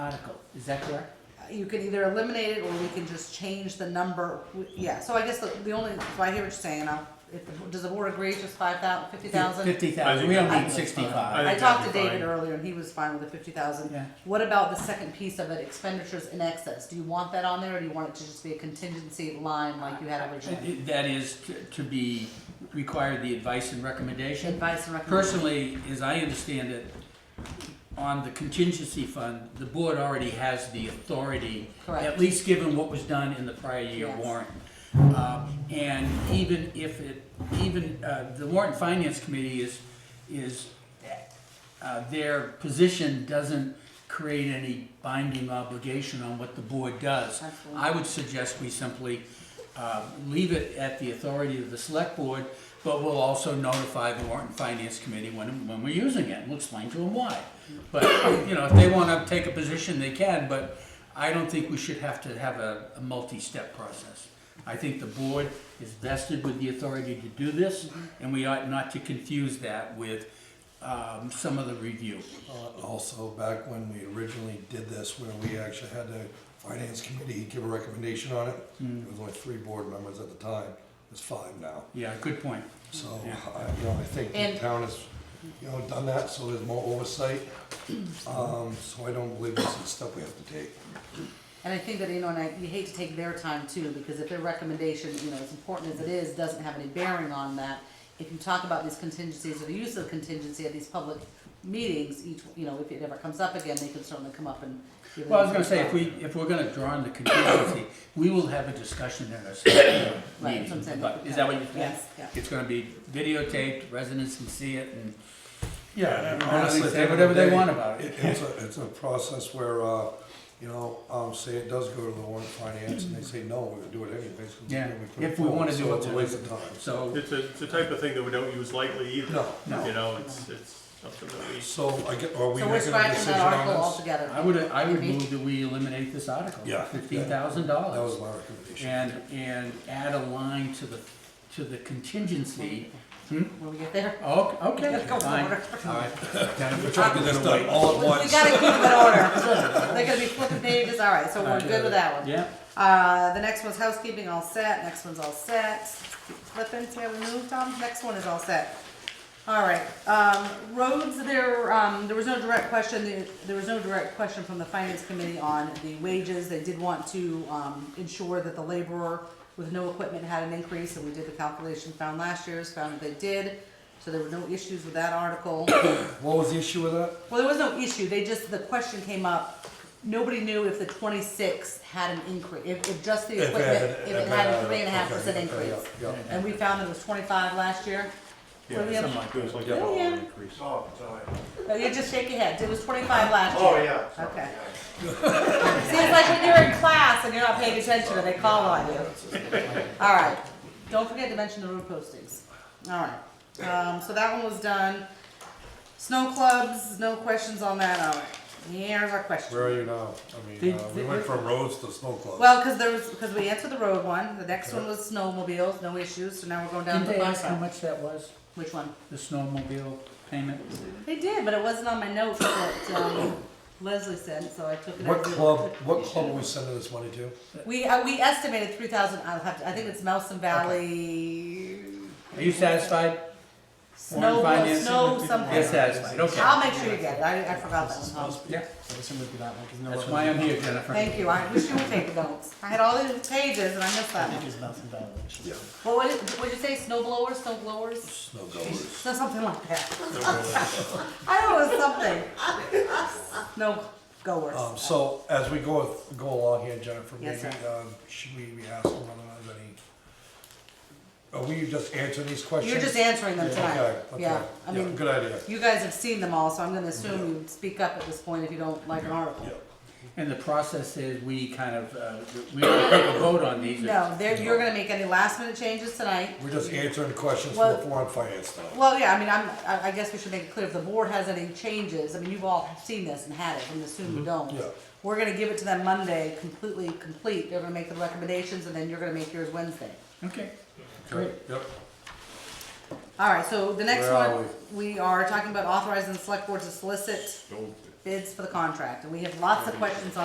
article, is that correct? You can either eliminate it, or we can just change the number, We- yeah, so I guess the, the only, so I hear what you're saying, I'll, if, the- does the board agree it's just five thou, fifty thousand? Fifty I thousand, think we don't that's fine. need I sixty-five. I think talked to that'd be David fine. earlier, and he was fine with the fifty thousand. Yeah. What about the second piece of it, expenditures in excess, do you want that on there, or do you want it to just be a contingency line like you had originally? It- That is to- to be, require the advice and recommendation. Advice and recommendation, Personally, as I understand it, on the contingency fund, the board already has the authority, Correct. at least given what was done in the prior year Yes. warrant. Uh, And even if it, even, uh, the warrant finance committee is, is, uh, their position doesn't create any binding obligation on what the board does. Absolutely. I would suggest we simply uh, leave it at the authority of the select board, but we'll also notify the warrant and finance committee when, when we're using it, and we'll explain to them why. But, you know, if they wanna take a position, they can, but I don't think we should have to have a, a multi-step process. I think the board is vested with the authority to do this, and we ought not to confuse that with um, some of the review. Uh, Also, back when we originally did this, where we actually had the finance committee give a recommendation on it, Hmm. there was only three board members at the time, there's five now. Yeah, good point. So, Yeah. I- you know, I think And- the town has, you know, done that, so there's more oversight. Um, so I don't believe this is stuff we have to take. and I think that, you know, and I, you hate to take their time too, because if their recommendation, you know, as important as it is, doesn't have any bearing on that, if you talk about these contingencies or the use of contingency at these public meetings, each, you know, if it ever comes up again, they can certainly come up and give it. Well, I was gonna say, if we, if we're gonna draw on the contingency, we will have a discussion at our select board Right, that's what I'm meeting. saying. But is that what you think? Yes, yeah. It's gonna be videotaped, residents can see it and, Yeah, and honestly, say whatever they want about it. It's a, it's a process where, uh, you know, um, say it does go to the warrant finance, and they say, no, we're gonna do it anyways. 'cause Yeah, put it if we wanna forward," do so it It's a to- waste of time. So, It's a, it's a type of thing that we don't use lightly either. No, no. You know, it's, it's something that we, So I get, are we So we're making a scratching decision that article on this? altogether. I would, I would Maybe. move that we eliminate this article, Yeah. fifteen thousand dollars. That was my recommendation. And, and add a line to the, to the contingency. Hmm? When we get there. Oh, okay, Go fine. forward. All right. Jennifer, We're trying to get this done all at We gotta once. keep it in order. They're gonna be flipping pages, all right, so we're good with that one. Yeah, Uh, the next one's housekeeping, all set, next one's all set. Keep Flipping, see how we moved, Tom? Next one is all set. All right, um, roads, there, um, there was no direct question, there- there was no direct question from the finance committee on the wages. They did want to, um, ensure that the laborer with no equipment had an increase, and we did the calculation, found last year's, found that they did. So there were no issues with that article. What was the issue with that? Well, there was no issue, they just, the question came up, nobody knew if the twenty-six had an increase, if, if just the If it equipment, had- if it had a uh, three and a half okay, percent yeah, increase. yeah, yeah. And we found it was twenty-five last year. What do we have? something like that. it's like Yeah, a dollar yeah. increase. Oh, sorry. Oh, You just shake your head, it was twenty-five last year. Oh, yeah. sorry, Okay. yeah. Seems like when you're in class and you're not paying attention and they call on you. All right, don't forget to mention the road postings. All right, um, so that one was done. Snow clubs, no questions on that, all right. Here's our question. Where are you now? I mean, uh, we went from roads to snow clubs. Well, because there was, because we answered the road one, the next one was snowmobiles, no issues, so now we're going down Didn't to the they ask how bus. much that was, Which one? the snowmobile payment? They did, but it wasn't on my notes that um, Leslie said, so I took it. What as a- club, what club are we sending this money to? We, uh, we estimated three thousand, I'll have to, I think it's Melson Valley. Are you satisfied? Snow, financing? snow Yes, something. satisfied, okay. I'll make sure you get it, I, I forgot that one. Tom. Yeah, I assume it'd be that one, 'cause no that's other- why I'm here, Jennifer. Thank you, I wish you would take notes. I had all these pages and I missed I that think one. it's Nelson Valley, actually. Yeah. What, what, what'd you say, snow blowers, snow blowers? Snow goers. So something like that. I know it was something. No goers. Um, so as we go, go along here, Jennifer, Yes, maybe, um, should we be asking whether there's any? Are we just answering these questions? You're just answering them tonight. Okay, okay. Yeah, I mean, Good idea. you guys have seen them all, so I'm gonna assume you speak up at this point if you don't like an article. And the process is, we kind of, uh, we don't take a vote on these. No, there, you're gonna make any last minute changes tonight. We're just answering questions from Well- the foreign finance now. Well, yeah, I mean, I'm, I, I guess we should make it clear, if the board has any changes, I mean, you've all seen this and had it, I'm assuming you don't. Mm-hmm. Yeah. We're gonna give it to them Monday, completely complete, they're gonna make the recommendations, and then you're gonna make yours Wednesday. Okay, great. Yep. All right, so the next Where are one, we are talking about authorizing the select board to solicit Mm-hmm. bids for the contract, and we have lots of questions on.